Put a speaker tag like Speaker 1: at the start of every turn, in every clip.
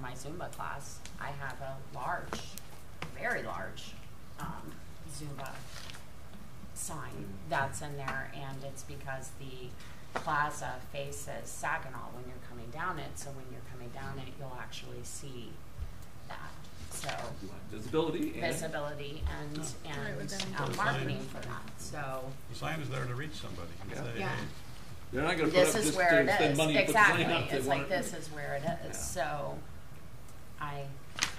Speaker 1: my Zumba class, I have a large, very large, um, Zumba sign that's in there, and it's because the plaza faces Saginaw when you're coming down it, so when you're coming down it, you'll actually see that, so
Speaker 2: Visibility and
Speaker 1: visibility and,
Speaker 3: Right,
Speaker 1: and
Speaker 3: within-
Speaker 1: uh,
Speaker 4: Design.
Speaker 1: marketing for that, so.
Speaker 4: The sign is there to reach somebody and
Speaker 2: Yeah.
Speaker 4: say,
Speaker 1: Yeah.
Speaker 4: hey,
Speaker 2: they're not gonna put up
Speaker 1: This
Speaker 2: just
Speaker 1: is
Speaker 2: to
Speaker 1: where it
Speaker 2: spend
Speaker 1: is,
Speaker 2: money and put the sign
Speaker 1: exactly,
Speaker 2: up. They
Speaker 1: it's
Speaker 2: want
Speaker 1: like
Speaker 2: it-
Speaker 1: this is where it
Speaker 2: Yeah.
Speaker 1: is, so I,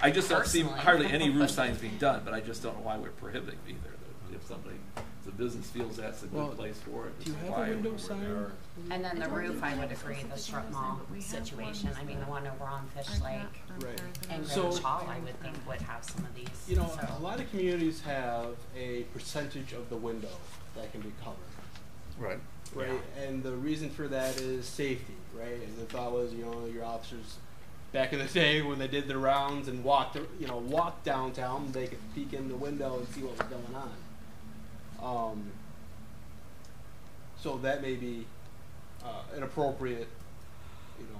Speaker 2: I just don't see
Speaker 1: personally.
Speaker 2: hardly any roof signs being done, but I just don't know why we're prohibiting either. That If somebody, if the business feels that's a
Speaker 5: Well,
Speaker 2: good place for it.
Speaker 5: do you
Speaker 2: it's
Speaker 5: have a
Speaker 2: why
Speaker 5: window
Speaker 2: we're
Speaker 5: sign?
Speaker 2: there.
Speaker 1: and then
Speaker 3: I
Speaker 1: the
Speaker 3: don't
Speaker 1: roof,
Speaker 3: think
Speaker 1: I
Speaker 3: we
Speaker 1: would
Speaker 3: have
Speaker 1: agree, the
Speaker 3: specific
Speaker 1: strip
Speaker 3: windows in,
Speaker 1: mall
Speaker 3: but we have
Speaker 1: situation,
Speaker 3: ones
Speaker 1: I mean, the
Speaker 3: that
Speaker 1: one over on Fish
Speaker 3: are
Speaker 1: Lake
Speaker 3: not on
Speaker 5: Right.
Speaker 3: Thursday.
Speaker 1: and
Speaker 5: So-
Speaker 1: Greenwich Hall, I would think would have some of these,
Speaker 5: You know,
Speaker 1: so.
Speaker 5: a lot of communities have a percentage of the window that can be covered,
Speaker 4: Right.
Speaker 5: right? And the reason for that is safety, right? And the thought was, you know, your officers back in the day when they did their rounds and walked, ar- you know, walked downtown, they could peek in the window and see what was going on. Um, so that may be uh, inappropriate, you know,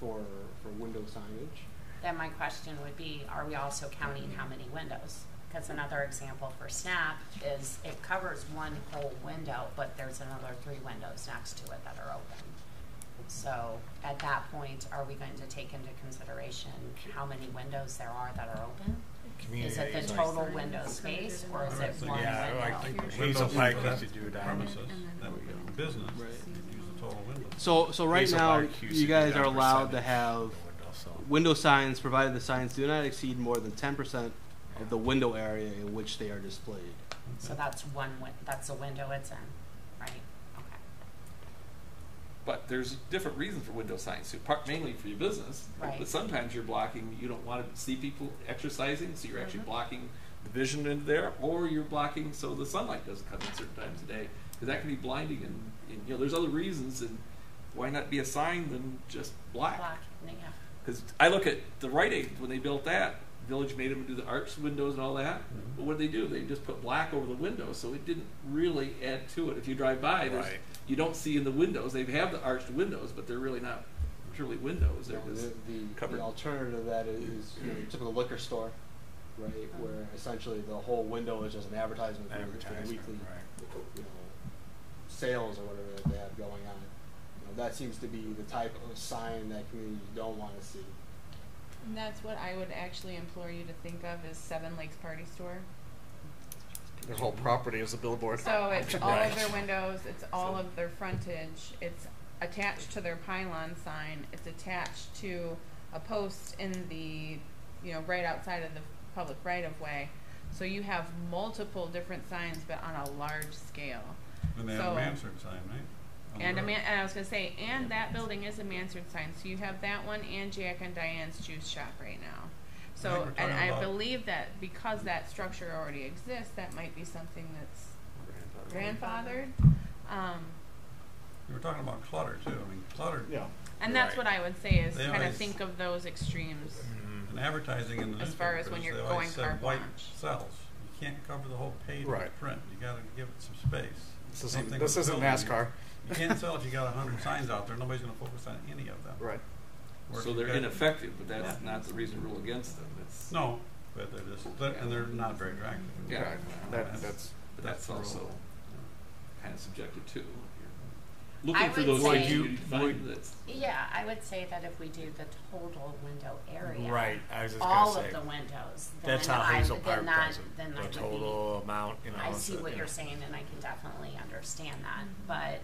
Speaker 5: for for window signage.
Speaker 1: Then my question would be, are we also counting how many windows? Because another example for SNAP is it covers one whole window, but there's another three windows next to it that are open. So at that point, are we going to take into consideration how many windows there are that are open? Is it the total window space or is it one
Speaker 6: Yeah, I
Speaker 1: window?
Speaker 6: think
Speaker 4: Window
Speaker 6: Hazel Pike
Speaker 4: is
Speaker 6: used to do that.
Speaker 4: Premises,
Speaker 3: And
Speaker 4: that
Speaker 3: then-
Speaker 4: would be a business,
Speaker 5: Right.
Speaker 4: use the total window.
Speaker 5: So, so right
Speaker 6: Hazel
Speaker 5: now,
Speaker 6: Park used to
Speaker 5: you
Speaker 6: do
Speaker 5: guys
Speaker 6: that
Speaker 5: are
Speaker 6: for
Speaker 5: allowed to
Speaker 6: Sunday.
Speaker 5: have window signs, provided the signs do not exceed more than ten percent of the window area in which they are displayed.
Speaker 1: So that's one, win- that's a window it's in, right? Okay,
Speaker 2: But there's different reasons for window signs, too, part mainly for your business.
Speaker 1: Right.
Speaker 2: But sometimes you're blocking, you don't want to see people exercising, so you're actually
Speaker 1: Mhm.
Speaker 2: blocking the vision into there, or you're blocking so the sunlight doesn't come in certain times of day, because that can be blinding and, and, you know, there's other reasons and why not be a sign than just
Speaker 1: black, yeah.
Speaker 2: Because I look at the Rite Aid when they built that village made them do the arch windows and all that.
Speaker 4: Mhm.
Speaker 2: But what did they do? They just put black over the windows, so it didn't really add to it. If you drive by, there's
Speaker 6: Right.
Speaker 2: you don't see in the windows. They have the arched windows, but they're really not truly windows. They're
Speaker 5: Now,
Speaker 2: just
Speaker 5: the, the,
Speaker 2: covered.
Speaker 5: the alternative to that is, is you know, your typical liquor store, right,
Speaker 6: Uh-huh.
Speaker 5: where essentially the whole window is just an advertisement for, the- for the
Speaker 6: Advertisement,
Speaker 5: weekly,
Speaker 6: right.
Speaker 5: you know, sales or whatever that they have going on. You know, that seems to be the type of sign that communities don't want to see.
Speaker 7: And that's what I would actually implore you to think of as Seven Lakes Party Store.
Speaker 6: Their whole property is a billboard.
Speaker 7: So it's all
Speaker 6: Right.
Speaker 7: of their windows, it's all
Speaker 2: So-
Speaker 7: of their frontage, it's attached to their pylon sign, it's attached to a post in the, you know, right outside of the public right of way. So you have multiple different signs, but on a large scale.
Speaker 4: And they have a
Speaker 7: So-
Speaker 4: Mansard sign, right? On the
Speaker 7: And a
Speaker 4: door.
Speaker 7: man, and I was gonna say, and that building is a Mansard sign, so you have that one and Jack and Diane's juice shop right now.
Speaker 4: I think
Speaker 7: So,
Speaker 4: we're
Speaker 7: and
Speaker 4: talking
Speaker 7: I
Speaker 4: about-
Speaker 7: believe that because that structure already exists, that might be something that's grandfathered. Um,
Speaker 4: You were talking about clutter too, I mean, clutter,
Speaker 5: Yeah.
Speaker 7: and that's
Speaker 6: Right.
Speaker 7: what I would say is
Speaker 4: They
Speaker 7: kind of
Speaker 4: always-
Speaker 7: think of those extremes.
Speaker 6: Mm.
Speaker 4: and advertising in the
Speaker 7: As far as
Speaker 4: newspapers,
Speaker 7: when you're
Speaker 4: they always
Speaker 7: going
Speaker 4: said
Speaker 7: carte
Speaker 4: white
Speaker 7: blanche.
Speaker 4: cells. You can't cover the whole page with
Speaker 6: Right.
Speaker 4: print, you gotta give it some space.
Speaker 6: This
Speaker 4: Same
Speaker 6: isn't,
Speaker 4: thing
Speaker 6: this
Speaker 4: with
Speaker 6: isn't
Speaker 4: buildings.
Speaker 6: NASCAR.
Speaker 4: You can't sell if you got a hundred signs out there, nobody's gonna focus on any of them.
Speaker 6: Right.
Speaker 4: Or if
Speaker 2: so
Speaker 4: you've
Speaker 2: they're
Speaker 4: got-
Speaker 2: ineffective. But that's
Speaker 4: Yeah.
Speaker 2: not the reason to rule against them. It's
Speaker 4: No, but they're just, they're- and they're not very attractive.
Speaker 2: Yeah.
Speaker 6: Right. That, that's,
Speaker 2: but that's,
Speaker 4: That's the
Speaker 2: also
Speaker 4: rule.
Speaker 2: kind of subjective too. Looking
Speaker 1: I
Speaker 2: for
Speaker 1: would
Speaker 2: those
Speaker 1: say-
Speaker 2: things
Speaker 6: Would you-
Speaker 2: you find
Speaker 6: would-
Speaker 2: that's
Speaker 1: Yeah, I would say that if we do the total window area.
Speaker 6: right, I was just gonna
Speaker 1: all of
Speaker 6: say,
Speaker 1: the windows.
Speaker 6: that's
Speaker 1: then
Speaker 6: how
Speaker 1: I-
Speaker 6: Hazel
Speaker 1: then
Speaker 6: Park
Speaker 1: that-
Speaker 6: does it,
Speaker 1: Then I
Speaker 6: the
Speaker 1: would be-
Speaker 6: total amount, you know.
Speaker 1: I
Speaker 6: it's
Speaker 1: see
Speaker 6: a-
Speaker 1: what
Speaker 6: you
Speaker 1: you're
Speaker 6: know.
Speaker 1: saying and I can definitely understand that, but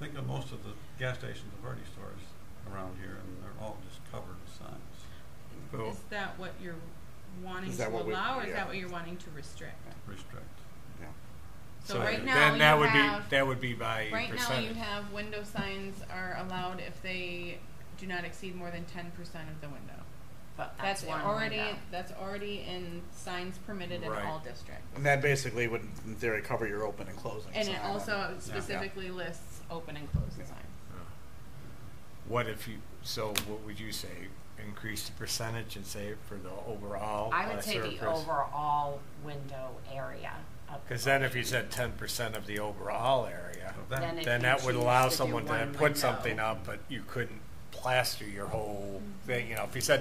Speaker 4: Think of most of the gas stations and Verde stores around here, and they're all just covered with signs.
Speaker 6: Well,
Speaker 7: Is that what you're wanting
Speaker 6: Is
Speaker 7: to
Speaker 6: that what we-
Speaker 7: allow, or is
Speaker 6: yeah.
Speaker 7: that what you're wanting to restrict?
Speaker 4: Restrict.
Speaker 6: yeah.
Speaker 7: So right
Speaker 6: then
Speaker 7: now
Speaker 6: that
Speaker 7: you
Speaker 6: would
Speaker 7: have-
Speaker 6: be, that would be by
Speaker 7: Right now, you
Speaker 6: percentage.
Speaker 7: have window signs are allowed if they do not exceed more than ten percent of the window.
Speaker 1: but that's
Speaker 7: That's
Speaker 1: one
Speaker 7: already,
Speaker 1: window.
Speaker 7: that's already in signs permitted in
Speaker 6: Right.
Speaker 7: all districts.
Speaker 6: And that basically would, in thery, cover your open and closing.
Speaker 7: And it
Speaker 6: sign.
Speaker 7: also
Speaker 6: Yeah.
Speaker 7: specifically lists open and closed
Speaker 6: Yeah.
Speaker 7: signs.
Speaker 6: Uh, What if you, so what would you say, increase the percentage and say for the overall?
Speaker 1: I would
Speaker 6: uh,
Speaker 1: say the
Speaker 6: surface?
Speaker 1: overall window area of. the
Speaker 6: Because then if you
Speaker 1: building.
Speaker 6: said ten percent of the overall area,
Speaker 4: So
Speaker 1: Then
Speaker 4: that,
Speaker 1: it-
Speaker 6: then
Speaker 1: you
Speaker 6: that would
Speaker 1: choose
Speaker 6: allow
Speaker 1: to do
Speaker 6: someone to
Speaker 1: one
Speaker 6: put
Speaker 1: window. Mm-hmm.
Speaker 6: something up, but you couldn't plaster your whole thing, you know, if you said